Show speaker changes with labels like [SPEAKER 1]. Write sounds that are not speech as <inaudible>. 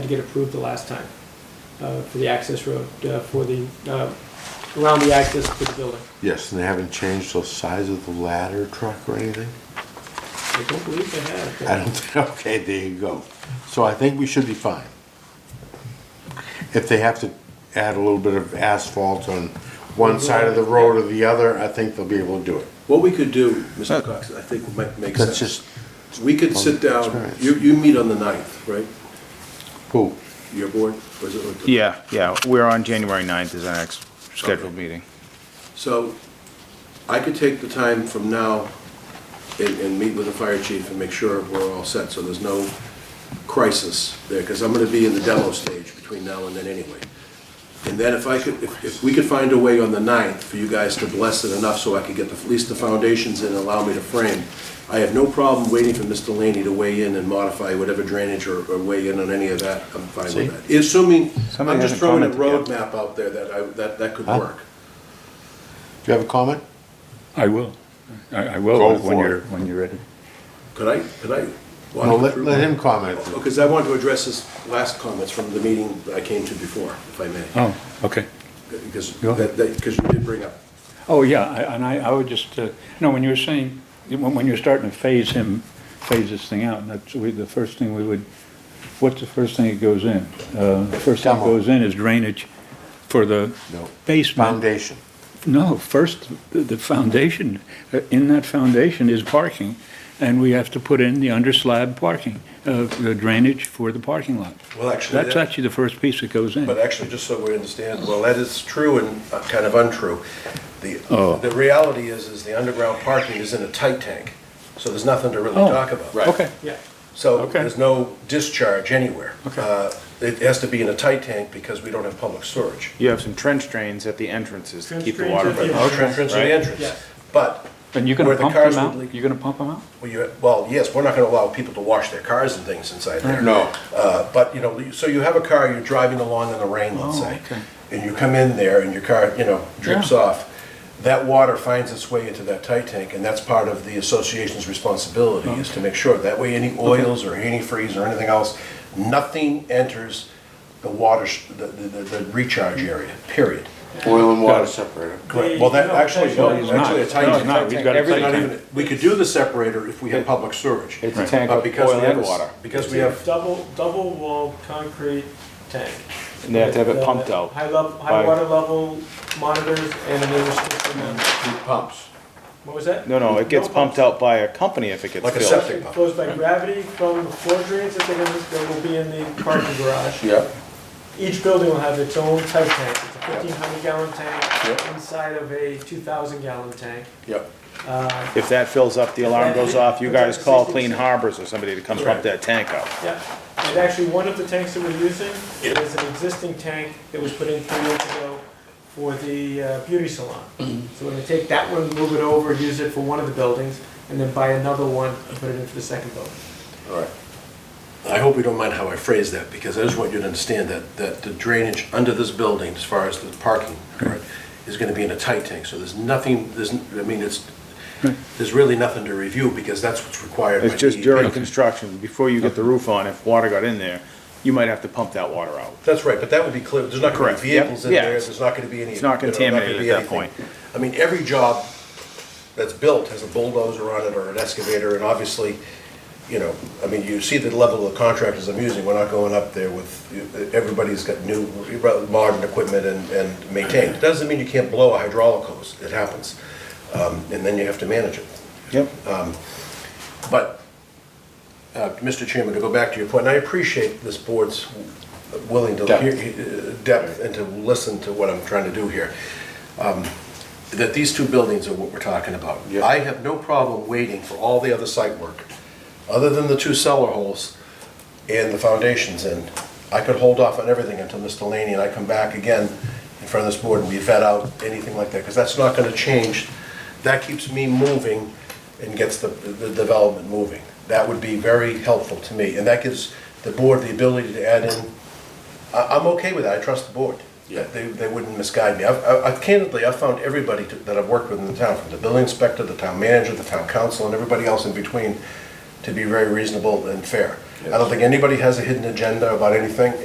[SPEAKER 1] get approved the last time uh, for the access road, uh, for the, uh, around the access to the building.
[SPEAKER 2] Yes, and they haven't changed the size of the ladder truck or anything?
[SPEAKER 1] I don't believe they have.
[SPEAKER 2] I don't think, <laughs> okay, there you go. So I think we should be fine. If they have to add a little bit of asphalt on one side of the road or the other, I think they'll be able to do it.
[SPEAKER 3] What we could do, Mr. Cox, I think might make
[SPEAKER 2] That's
[SPEAKER 3] sense.
[SPEAKER 2] just,
[SPEAKER 3] We could sit down,
[SPEAKER 2] Experience.
[SPEAKER 3] you, you meet on the ninth, right?
[SPEAKER 2] cool.
[SPEAKER 3] Your board, or is it?
[SPEAKER 4] Yeah, yeah, we're on January 9th is our next scheduled meeting.
[SPEAKER 3] So I could take the time from now and, and meet with the fire chief and make sure we're all set, so there's no crisis there, because I'm gonna be in the demo stage between now and then anyway. And then if I could, if, if we could find a way on the 9th for you guys to bless it enough so I could get the- at least the foundations in and allow me to frame, I have no problem waiting for Mr. Laney to weigh in and modify whatever drainage or, or weigh in on any of that, I'm fine
[SPEAKER 2] See?
[SPEAKER 3] with that. Assuming,
[SPEAKER 4] Somebody
[SPEAKER 3] I'm just
[SPEAKER 4] hasn't
[SPEAKER 3] throwing a
[SPEAKER 4] commented yet.
[SPEAKER 3] roadmap out there that I, that, that could
[SPEAKER 2] Huh?
[SPEAKER 3] work.
[SPEAKER 2] Do you have a comment?
[SPEAKER 5] I will. I, I
[SPEAKER 2] Go
[SPEAKER 5] will
[SPEAKER 2] for
[SPEAKER 5] when you're,
[SPEAKER 2] it.
[SPEAKER 5] when you're ready.
[SPEAKER 3] Could I, could I? walk
[SPEAKER 2] No,
[SPEAKER 3] you
[SPEAKER 2] let,
[SPEAKER 3] through
[SPEAKER 2] let
[SPEAKER 3] my-
[SPEAKER 2] him comment.
[SPEAKER 3] Because I want to address his last comments from the meeting I came to before, if I may.
[SPEAKER 5] Oh, okay.
[SPEAKER 3] Because,
[SPEAKER 5] Go ahead.
[SPEAKER 3] that, because you did bring up,
[SPEAKER 5] Oh, yeah, I- and I, I would just, uh, no, when you were saying, when, when you're starting to phase him, phase this thing out, and that's, we, the first thing we would, what's the first thing that goes in? Uh, the first thing that
[SPEAKER 2] Demo.
[SPEAKER 5] goes in is drainage for the
[SPEAKER 2] No.
[SPEAKER 5] basement.
[SPEAKER 2] Foundation.
[SPEAKER 5] No, first, the- the foundation, uh, in that foundation is parking, and we have to put in the under slab parking, uh, the drainage for the parking lot.
[SPEAKER 3] Well, actually,
[SPEAKER 5] That's
[SPEAKER 3] that-
[SPEAKER 5] actually the first piece that goes in.
[SPEAKER 3] but actually, just so we understand, well, that is true and uh, kind of untrue. The,
[SPEAKER 5] Oh.
[SPEAKER 3] the reality is, is the underground parking is in a tight tank, so there's nothing to really
[SPEAKER 5] Oh,
[SPEAKER 3] talk about.
[SPEAKER 5] Okay.
[SPEAKER 1] Yeah.
[SPEAKER 3] So
[SPEAKER 5] Okay.
[SPEAKER 3] there's no discharge anywhere.
[SPEAKER 5] Okay.
[SPEAKER 3] Uh, It has to be in a tight tank because we don't have public storage.
[SPEAKER 4] You have some trench drains at the entrances to keep the
[SPEAKER 1] Trench
[SPEAKER 4] water.
[SPEAKER 1] drains at the
[SPEAKER 4] from-
[SPEAKER 1] Okay.
[SPEAKER 3] Entrance and
[SPEAKER 4] Right.
[SPEAKER 1] Yeah.
[SPEAKER 3] entrance. But
[SPEAKER 5] And you're gonna
[SPEAKER 3] Where the
[SPEAKER 5] pump
[SPEAKER 3] cars
[SPEAKER 5] them
[SPEAKER 3] would
[SPEAKER 5] out?
[SPEAKER 3] leak.
[SPEAKER 5] You're gonna pump them out?
[SPEAKER 3] Well, you, well, yes, we're not gonna allow people to wash their cars and things inside there.
[SPEAKER 2] No.
[SPEAKER 3] Uh, but, you know, so you have a car, you're driving along in the rain, let's
[SPEAKER 5] Oh,
[SPEAKER 3] say,
[SPEAKER 5] okay.
[SPEAKER 3] and you come in there and your car, you know, drips
[SPEAKER 5] Yeah.
[SPEAKER 3] off. That water finds its way into that tight tank, and that's part of the association's responsibility, is to make sure, that way any oils or antifreeze or anything else, nothing enters the water, sh- the, the, the recharge area, period.
[SPEAKER 2] Oil and water separator.
[SPEAKER 3] Correct, well, that
[SPEAKER 1] No,
[SPEAKER 3] actually,
[SPEAKER 1] actually,
[SPEAKER 3] no,
[SPEAKER 5] he's
[SPEAKER 3] actually,
[SPEAKER 5] not.
[SPEAKER 3] a tight
[SPEAKER 5] No,
[SPEAKER 3] tank.
[SPEAKER 5] he's not. He's got a
[SPEAKER 3] Every-
[SPEAKER 5] tight
[SPEAKER 3] not
[SPEAKER 5] tank.
[SPEAKER 3] even- We could do the separator if we had public storage.
[SPEAKER 4] It's a tank
[SPEAKER 3] But
[SPEAKER 4] of
[SPEAKER 3] because
[SPEAKER 4] oil
[SPEAKER 3] we have
[SPEAKER 4] and
[SPEAKER 3] a-
[SPEAKER 4] water.
[SPEAKER 3] Because we have,
[SPEAKER 1] Double, double walled concrete tank.
[SPEAKER 4] And they have to have it
[SPEAKER 1] The
[SPEAKER 4] pumped out.
[SPEAKER 1] High level, high
[SPEAKER 4] by-
[SPEAKER 1] water level monitors and then restriction on,
[SPEAKER 2] Pumps.
[SPEAKER 1] what was that?
[SPEAKER 4] No, no, it gets pumped out by a company if it gets
[SPEAKER 3] Like a
[SPEAKER 4] filled.
[SPEAKER 3] septic.
[SPEAKER 1] It flows by gravity from the floor drains that they're gonna- that will be in the parking garage.
[SPEAKER 2] Yep.
[SPEAKER 1] Each building will have its own tight tank. It's a fifteen hundred gallon tank
[SPEAKER 3] Yep.
[SPEAKER 1] inside of a two thousand gallon tank.
[SPEAKER 3] yep,
[SPEAKER 1] Uh,
[SPEAKER 4] If that fills up, the alarm goes off, you guys call Clean Harbors or somebody to come pump
[SPEAKER 3] Correct.
[SPEAKER 4] that tank out.
[SPEAKER 1] yeah, and actually, one of the tanks that we're using is an existing tank that was put in three years ago for the uh, beauty salon. So we're gonna take that one, move it over, use it for one of the buildings, and then buy another one and put it in for the second building.
[SPEAKER 3] all right. I hope you don't mind how I phrase that, because I just want you to understand that, that the drainage under this building, as far as the parking, correct, is gonna be in a tight tank, so there's nothing, there's, n- I mean, it's, there's really nothing to review, because that's what's required. by E
[SPEAKER 4] It's just
[SPEAKER 3] DEP.
[SPEAKER 4] during construction, before you get the roof on, if water got in there, you might have to pump that water out.
[SPEAKER 3] That's right, but that would be clear, there's not gonna be
[SPEAKER 4] Correct, yep,
[SPEAKER 3] vehicles in
[SPEAKER 4] yeah,
[SPEAKER 3] there,
[SPEAKER 4] it's-
[SPEAKER 3] there's not gonna be any.
[SPEAKER 4] it's not
[SPEAKER 3] you know, gonna
[SPEAKER 4] contaminated
[SPEAKER 3] be
[SPEAKER 4] at that
[SPEAKER 3] anything.
[SPEAKER 4] point.
[SPEAKER 3] I mean, every job that's built has a bulldozer on it or an excavator, and obviously, you know, I mean, you see the level of contractors I'm using, we're not going up there with, everybody's got new, modern equipment and, and maintained. It Doesn't mean you can't blow a hydraulic hose, it happens, um, and then you have to manage it.
[SPEAKER 4] Yep.
[SPEAKER 3] But, uh, Mr. Chairman, to go back to your point, and I appreciate this board's willing to
[SPEAKER 2] Depth.
[SPEAKER 3] hear, uh, depth and to listen to what I'm trying to do here, um, that these two buildings are what we're talking about.
[SPEAKER 2] Yeah.
[SPEAKER 3] I have no problem waiting for all the other site work, other than the two cellar holes and the foundations in. I could hold off on everything until Mr. Laney and I come back again in front of this board and we vet out anything like that, because that's not gonna change. That keeps me moving and gets the, the development moving. That would be very helpful to me, and that gives the board the ability to add in I, I'm okay with that, I trust the board.
[SPEAKER 2] Yeah.
[SPEAKER 3] They, they wouldn't misguide me. I've- I, I candidly, I've found everybody to- that I've worked with in the town, from the building inspector, the town manager, the town council, and everybody else in between, to be very reasonable and fair. I don't think anybody has a hidden agenda about anything,